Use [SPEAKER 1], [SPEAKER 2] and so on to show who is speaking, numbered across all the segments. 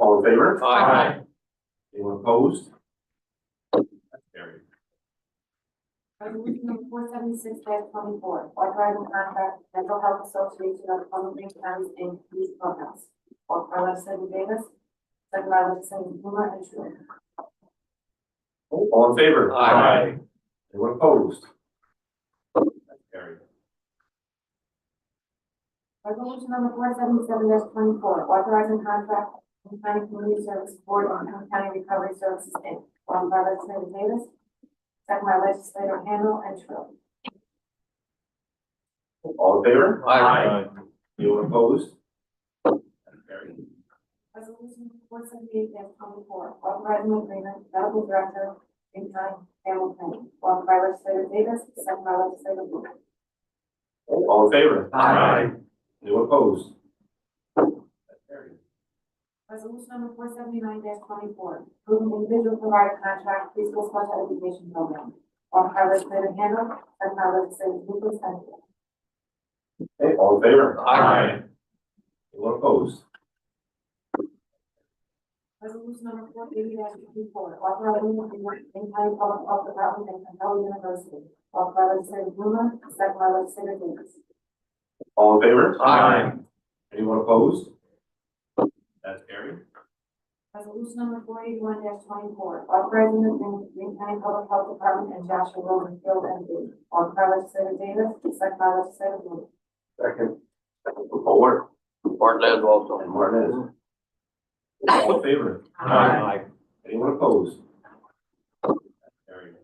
[SPEAKER 1] all in favor?
[SPEAKER 2] Aye.
[SPEAKER 1] Anyone opposed? That's carried.
[SPEAKER 3] Resolution four seventy six dash twenty four, authorizing contract with mental health association of Plymouth Green County and Police Courthouse. Offered by legislator Davis, second by legislator Blumer and Schuler.
[SPEAKER 1] All in favor?
[SPEAKER 2] Aye.
[SPEAKER 1] Anyone opposed? That's carried.
[SPEAKER 3] Resolution number four seventy seven dash twenty four, authorizing contract with County Community Service Board and Plymouth County Recovery Services Inc. Offered by legislator Davis, second by legislator Handle and Schuler.
[SPEAKER 1] All in favor?
[SPEAKER 2] Aye.
[SPEAKER 1] Anyone opposed? That's carried.
[SPEAKER 3] Resolution four seventy-eight twenty-four, authorizing agreement, medical director, in time, family planning, offered by legislator Davis, second by legislator Blumer.
[SPEAKER 1] All in favor?
[SPEAKER 2] Aye.
[SPEAKER 1] Anyone opposed? That's carried.
[SPEAKER 3] Resolution number four seventy-nine twenty-four, approving individual provider contract preschool special education program, offered by legislator Handle, second by legislator Blumer, Stanfield.
[SPEAKER 1] Okay, all in favor?
[SPEAKER 2] Aye.
[SPEAKER 1] Anyone opposed?
[SPEAKER 3] Resolution number four eighty twenty-four, authorizing agreement, in time, public health department and Capella University, offered by legislator Blumer, second by legislator Davis.
[SPEAKER 1] All in favor?
[SPEAKER 2] Aye.
[SPEAKER 1] Anyone opposed? That's carried.
[SPEAKER 3] Resolution number four eighty-one twenty-four, authorizing the Green County Public Health Department and Joshua Wilson Field M D. Offered by legislator Davis, second by legislator Lewis.
[SPEAKER 1] Second. Second from Howard
[SPEAKER 2] Bartlett also.
[SPEAKER 1] and Martinez. All in favor?
[SPEAKER 2] Aye.
[SPEAKER 1] Anyone opposed? That's carried.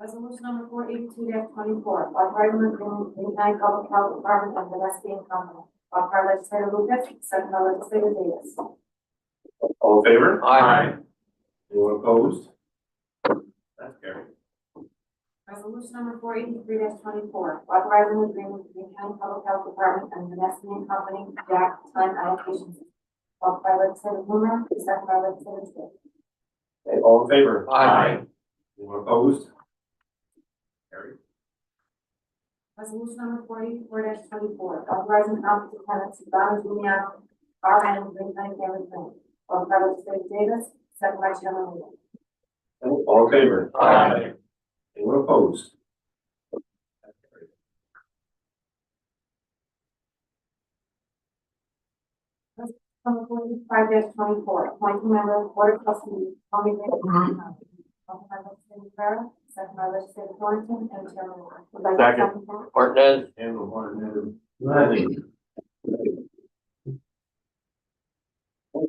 [SPEAKER 3] Resolution number four eighty-two twenty-four, authorizing the Green County Public Health Department and the Wesleyan Company. Offered by legislator Lucas, second by legislator Davis.
[SPEAKER 1] All in favor?
[SPEAKER 2] Aye.
[SPEAKER 1] Anyone opposed? That's carried.
[SPEAKER 3] Resolution number four eighty-three twenty-four, authorizing agreement between County Public Health Department and the Nestle Company, Jack Time Allocation System. Offered by legislator Blumer, second by legislator Davis.
[SPEAKER 1] Okay, all in favor?
[SPEAKER 2] Aye.
[SPEAKER 1] Anyone opposed? Carried.
[SPEAKER 3] Resolution number forty-four twenty-four, authorizing county lieutenant to Don Giuliano, R N, Green County Family Plan. Offered by legislator Davis, second by Chairman Linger.
[SPEAKER 1] Okay, All in favor?
[SPEAKER 2] Aye.
[SPEAKER 1] Anyone opposed? That's carried.
[SPEAKER 3] Number forty-five twenty-four, appointing member of board of trustees, Tommy Green. Offered by legislator Rivera, second by legislator Thornton, and Chairman Linger. Would like to
[SPEAKER 1] Second.
[SPEAKER 3] that?
[SPEAKER 2] Bartlett.
[SPEAKER 1] And the one and the-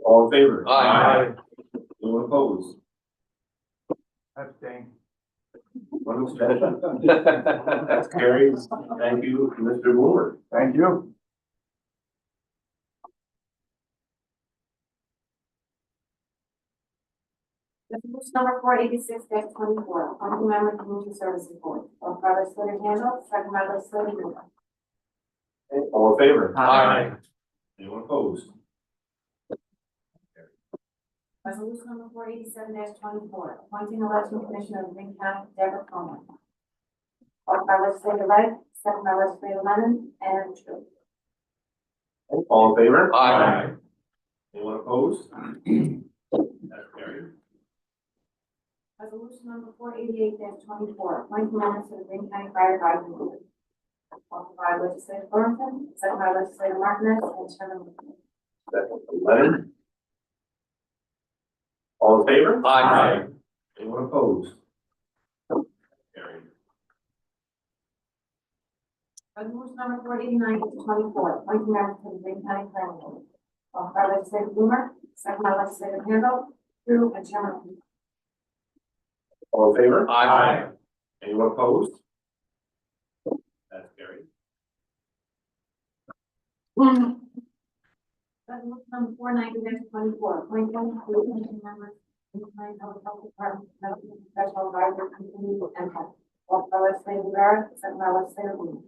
[SPEAKER 1] All in favor?
[SPEAKER 2] Aye.
[SPEAKER 1] Anyone opposed?
[SPEAKER 4] Abstain.
[SPEAKER 1] One abstention. That's carried. Thank you, Mr. Moore.
[SPEAKER 4] Thank you.
[SPEAKER 3] Resolution number four eighty-six twenty-four, appointing member of community services board. Offered by legislator Handle, second by legislator Lewis.
[SPEAKER 1] Okay, All in favor?
[SPEAKER 2] Aye.
[SPEAKER 1] Anyone opposed?
[SPEAKER 3] Resolution number four eighty-seven twenty-four, appointing election commissioner of Green County, Deborah Coleman. Offered by legislator Wright, second by legislator Lennon, and true.
[SPEAKER 1] Okay, All in favor?
[SPEAKER 2] Aye.
[SPEAKER 1] Anyone opposed? That's carried.
[SPEAKER 3] Resolution number four eighty-eight twenty-four, appointing members of the Green County Fire Advisory Board. Offered by legislator Thornton, second by legislator Martinez, and Chairman Linger.
[SPEAKER 1] Second from Leonard. All in favor?
[SPEAKER 2] Aye.
[SPEAKER 1] Anyone opposed? Carried.
[SPEAKER 3] Resolution number four eighty-nine twenty-four, appointing members of the Green County Planning Board. Offered by legislator Blumer, second by legislator Handle, through and Chairman Linger.
[SPEAKER 1] All in favor?
[SPEAKER 2] Aye.
[SPEAKER 1] Anyone opposed? That's carried.
[SPEAKER 3] Resolution number four ninety twenty-four, appointing three commission members in the County Public Health Department, Medical Professional Advisor Committee, and Health. Offered by legislator Rivera, second by legislator Blumer.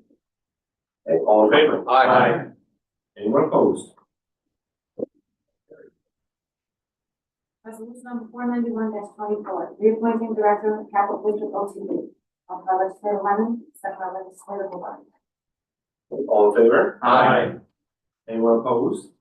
[SPEAKER 1] Okay, all in favor?
[SPEAKER 2] Aye.
[SPEAKER 1] Anyone opposed?
[SPEAKER 3] Resolution number four ninety-one twenty-four, reappointing Director of Capital District O T B. Offered by legislator Lemon, second by legislator Hobart.
[SPEAKER 1] All in favor?
[SPEAKER 2] Aye.
[SPEAKER 1] Anyone opposed?